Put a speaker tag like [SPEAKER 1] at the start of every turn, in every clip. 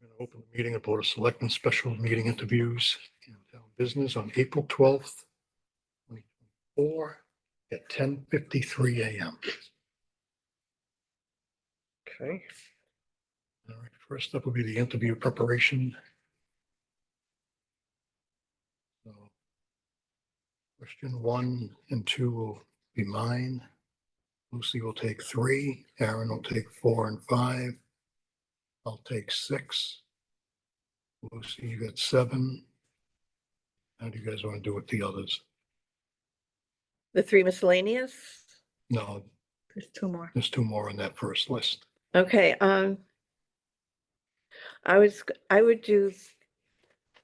[SPEAKER 1] Going to open the meeting of Board of Selectmen Special Meeting Interviews and Town Business on April twelfth, twenty twenty-four at ten fifty-three AM.
[SPEAKER 2] Okay,
[SPEAKER 1] All right, first up will be the interview preparation. So, Question one and two will be mine. Lucy will take three, Aaron will take four and five. I'll take six. Lucy, you got seven. How do you guys want to do with the others?
[SPEAKER 3] The three miscellaneous?
[SPEAKER 1] No,
[SPEAKER 3] There's two more.
[SPEAKER 1] there's two more on that first list.
[SPEAKER 3] Okay, um. I was, g- I would do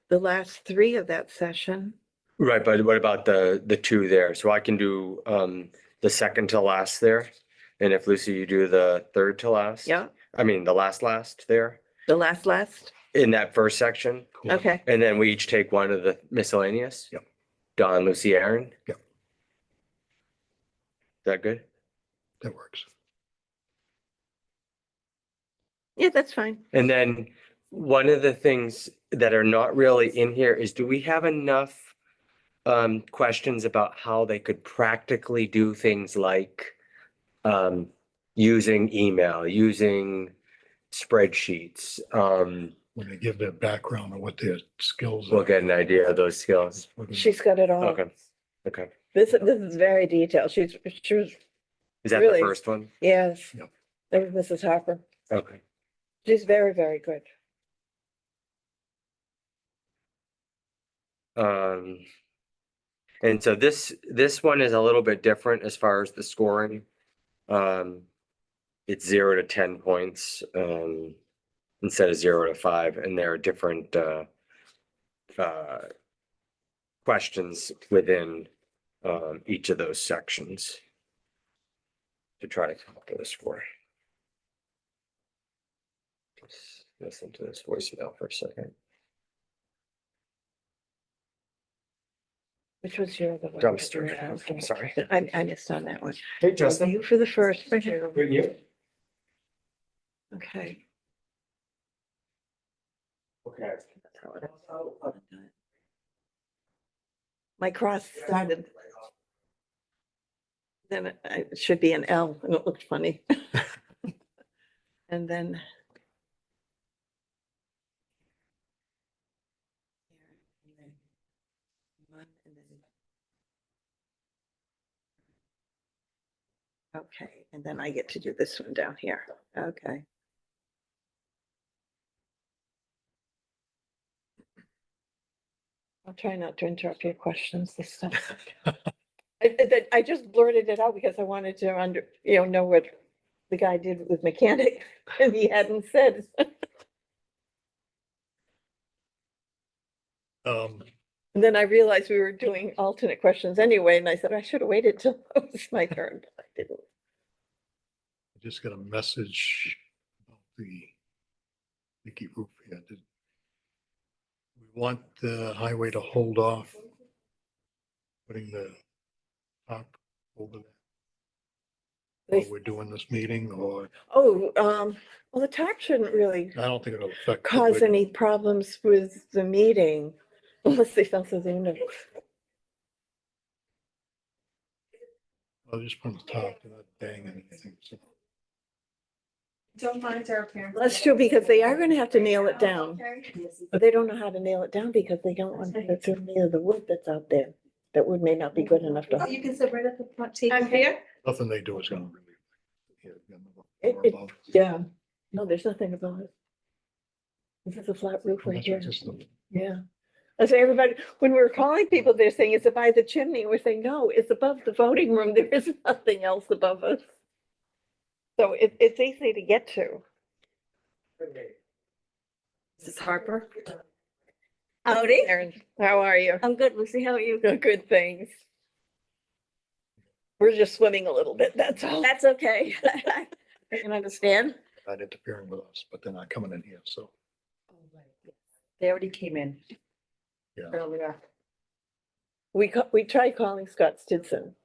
[SPEAKER 3] the last three of that session.
[SPEAKER 2] right, but what about the, the two there? So I can do, um, the second to last there. And if Lucy, you do the third to last?
[SPEAKER 3] Yeah,
[SPEAKER 2] I mean, the last, last there
[SPEAKER 3] the last, last.
[SPEAKER 2] in that first section.
[SPEAKER 1] Cool.
[SPEAKER 3] Okay,
[SPEAKER 2] And then we each take one of the miscellaneous?
[SPEAKER 1] Yep.
[SPEAKER 2] Don, Lucy, Aaron? Is
[SPEAKER 1] Yep.
[SPEAKER 2] that good?
[SPEAKER 1] That works.
[SPEAKER 3] yeah, that's fine.
[SPEAKER 2] And then one of the things that are not really in here is do we have enough um, questions about how they could practically do things like um, using email, using spreadsheets? Um,
[SPEAKER 1] When they give their background or what their skills.
[SPEAKER 2] we'll
[SPEAKER 1] are.
[SPEAKER 2] get an idea of those skills.
[SPEAKER 3] She's got it all.
[SPEAKER 2] Okay. Okay.
[SPEAKER 3] This, this is very detailed. She's, she was,
[SPEAKER 2] Is that
[SPEAKER 3] Really?
[SPEAKER 2] the first one?
[SPEAKER 3] yes.
[SPEAKER 1] Yep.
[SPEAKER 3] That was Mrs. Harper.
[SPEAKER 2] Okay.
[SPEAKER 3] She's very, very good.
[SPEAKER 2] Um, and so this, this one is a little bit different as far as the scoring. Um, it's zero to ten points, um, instead of zero to five, and there are different, uh, uh, questions within, um, each of those sections to try to come up with a score. Just Listen to this voicemail for a second.
[SPEAKER 3] Which was your other one? that you
[SPEAKER 2] Dumpster,
[SPEAKER 3] were asking?
[SPEAKER 2] I'm sorry.
[SPEAKER 3] I, I missed on that one.
[SPEAKER 2] Hey,
[SPEAKER 3] You for the first. right here.
[SPEAKER 2] Good you?
[SPEAKER 3] Okay.
[SPEAKER 2] Okay.
[SPEAKER 3] that's how it- My cross started. Then it- I- it should be an L and it looked funny. And then. Okay, and then I get to do this one down here. Okay. I'll try not to interrupt your questions this time. I, I- that- I just blurted it out because I wanted to under, you know, know what the guy did with mechanic and he hadn't said.
[SPEAKER 1] Um,
[SPEAKER 3] And then I realized we were doing alternate questions anyway, and I said, I should have waited till it was my turn, but I didn't.
[SPEAKER 1] I just got a message about the Nikki Roof here. Did- We want the highway to hold off putting the top over that
[SPEAKER 3] They-
[SPEAKER 1] while we're doing this meeting or
[SPEAKER 3] Oh, um, well, the talk shouldn't really
[SPEAKER 1] I don't think it'll affect. what we're
[SPEAKER 3] cause any problems with the meeting unless they felt so they knew.
[SPEAKER 1] doing. I'll just put on the top, they're not banging anything. so.
[SPEAKER 4] Don't mind our parents.
[SPEAKER 3] That's true, because they are gonna have to nail it down.
[SPEAKER 4] Okay.
[SPEAKER 3] But they don't know how to nail it down because they don't want to go through any of the wood that's out there. That wood may not be good enough to.
[SPEAKER 4] You can sit right at the front table.
[SPEAKER 5] I'm here.
[SPEAKER 1] Nothing they do is gonna really. yeah, yeah,
[SPEAKER 3] It-
[SPEAKER 1] more
[SPEAKER 3] it-
[SPEAKER 1] about-
[SPEAKER 3] Yeah. No, there's nothing about it. This is a flat roof right
[SPEAKER 1] That's what
[SPEAKER 3] here.
[SPEAKER 1] just the-
[SPEAKER 3] Yeah. That's why everybody, when we we're calling people, they're saying it's by the chimney. We're saying, no, it's above the voting room. There is nothing else above us. So it, it's easy to get to.
[SPEAKER 5] Mrs. Harper.
[SPEAKER 3] Howdy. How are you?
[SPEAKER 5] I'm good, Lucy. How are you?
[SPEAKER 3] Good, things. We're just swimming a little bit, that's all.
[SPEAKER 5] That's okay. I can understand.
[SPEAKER 1] Not interfering with us, but they're not coming in here, so.
[SPEAKER 5] They already came in.
[SPEAKER 1] Yeah.
[SPEAKER 5] Earlier.
[SPEAKER 3] We, ca- we tried calling Scott Stinson